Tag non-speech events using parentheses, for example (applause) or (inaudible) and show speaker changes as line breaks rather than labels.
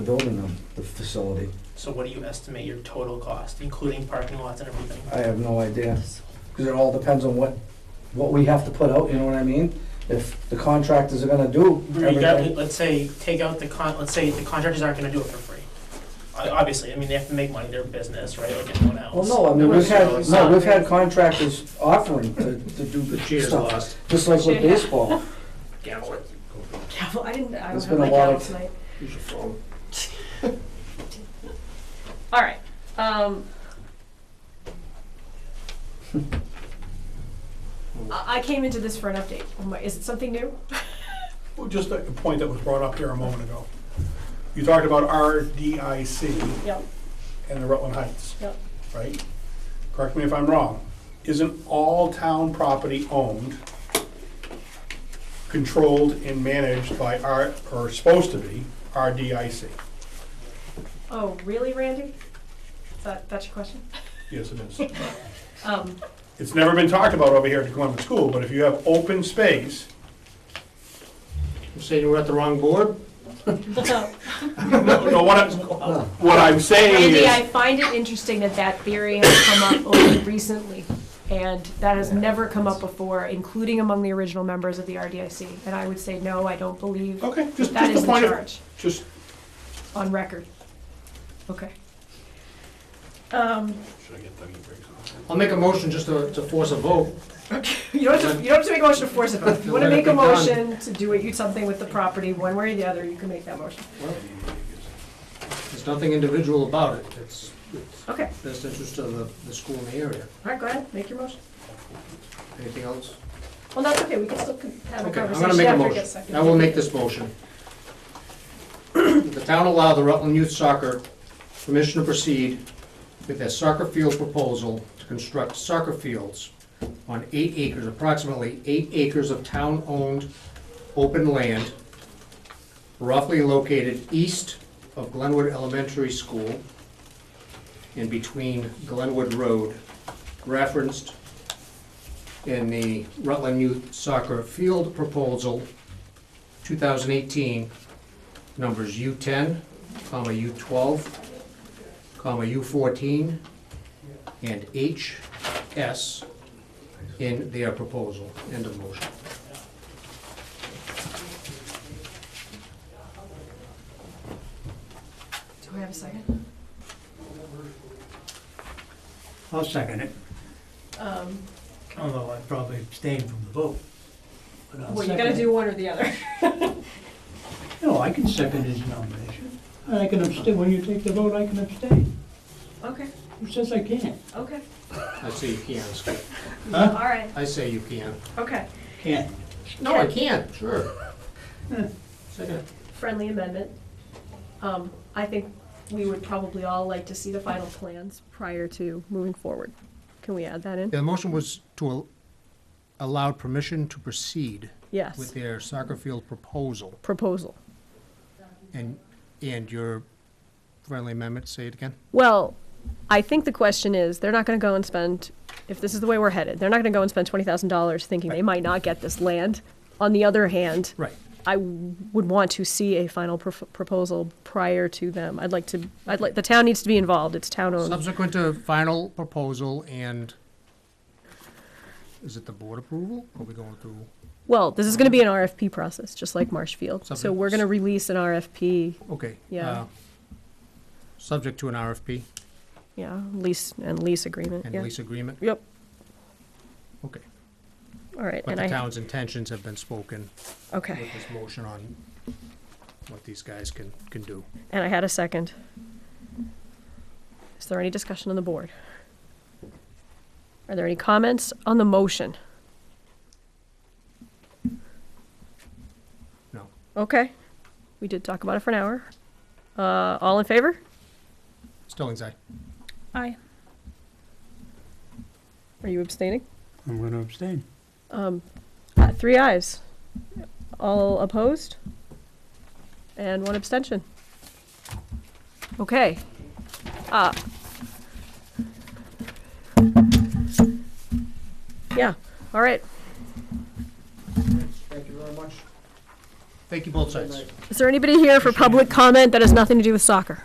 building the, the facility.
So what do you estimate your total cost, including parking lots and everything?
I have no idea, because it all depends on what, what we have to put out, you know what I mean? If the contractors are gonna do
Regardless,
everything,
let's say, take out the con, let's say the contractors aren't gonna do it for free. I- Obviously, I mean, they have to make money, they're a business, right, like anyone else.
well, no, I mean, we've had, no, we've had contractors offering to, to do
The
the
cheer's
stuff,
lost.
just like with
Cheer.
baseball.
Gavel.
Gavel, I didn't, I
There's
don't
been
have
a
my
lot
gavel
of-
tonight.
Use your phone.
All right, um. I, I came into this for an update. Oh my- Is it something new?
Well, Just a a point that was brought up here a moment ago. You talked about RDIC
Yep,
and the Rutland Heights,
yep.
right? Correct me if I'm wrong. Isn't all town property owned, controlled, and managed by R, or supposed to be, RDIC?
Oh, really, Randy? Is that, that's your question?
Yes, it is.
(laughs) Um,
It's never been talked about over here at the Columbus School, but if you have open space,
You saying we're at the wrong board?
no, no, what I'm, what I'm saying
Randy, I
is,
find it interesting that that theory has come up only recently. And that has never come up before, including among the original members of the RDIC. And I would say, no, I don't believe
okay, just,
that
just
is
a
the
point
charge.
of, just,
On record. Okay. Um,
I'll make a motion just to, to force a vote.
you don't have to, you don't have to make a motion to force it, but if you wanna
Let it
make a
be done.
motion to do what you, something with the property, one way or the other, you can make that motion.
There's nothing individual about it. It's, it's
Okay,
best interest of the, the school and the area.
alright, go ahead, make your motion.
Anything else?
Well, that's okay, we can still con- have a
Okay, I'm
conversation
gonna make a
after it gets
motion.
seconded.
I will make this motion. The town allow the Rutland Youth Soccer permission to proceed with their soccer field proposal to construct soccer fields on eight acres, approximately eight acres of town-owned open land roughly located east of Glenwood Elementary School and between Glenwood Road, referenced in the Rutland Youth Soccer Field Proposal, 2018, numbers U10, comma, U12, comma, U14, and HS in their proposal. End of motion.
Do I have a second?
I'll second it.
Um,
Although I probably abstained from the vote. but I'll
well, you
second
gotta
it.
do one or the other. (laughs)
No, I can second his nomination. And I can abstain, when you take the vote, I can abstain.
Okay,
Who says I can't?
okay,
I say you can, Skip.
Huh?
alright,
I say you can.
okay.
Can't.
No, I can, sure. Second.
friendly amendment. Um, I think we would probably all like to see the final plans prior to moving forward. Can we add that in?
Yeah, the motion was to al- allow permission to proceed with
Yes,
their soccer field proposal.
proposal.
And, and your friendly amendment, say it again?
Well, I think the question is, they're not gonna go and spend, if this is the way we're headed, they're not gonna go and spend twenty thousand dollars thinking they might not get this land. On the other hand,
Right.
I would want to see a final pro- proposal prior to them. I'd like to, I'd like, the town needs to be involved, it's town-owned.
Subsequent to final proposal and, is it the board approval? Are we going through?
Well, this is gonna be an RFP process, just like Marshfield. So
Subject-
we're gonna release an RFP
Okay.
Yeah.
uh, Subject to an RFP
Yeah, lease and lease agreement,
and
yeah.
lease agreement?
Yep,
Okay.
all right,
But
and
the
I,
town's intentions have been spoken
okay,
with this motion on what these guys can, can do.
and I had a second. Is there any discussion on the board? Are there any comments on the motion?
No.
Okay, we did talk about it for an hour. Uh, all in favor?
Stillings, aye.
Aye. Are you abstaining?
I'm going to abstain.
Um, uh, three ayes. All opposed? And one abstention. Okay. Uh. Yeah, all right.
Thank you very much. Thank you both sides.
Is there anybody here for public comment that has nothing to do with soccer?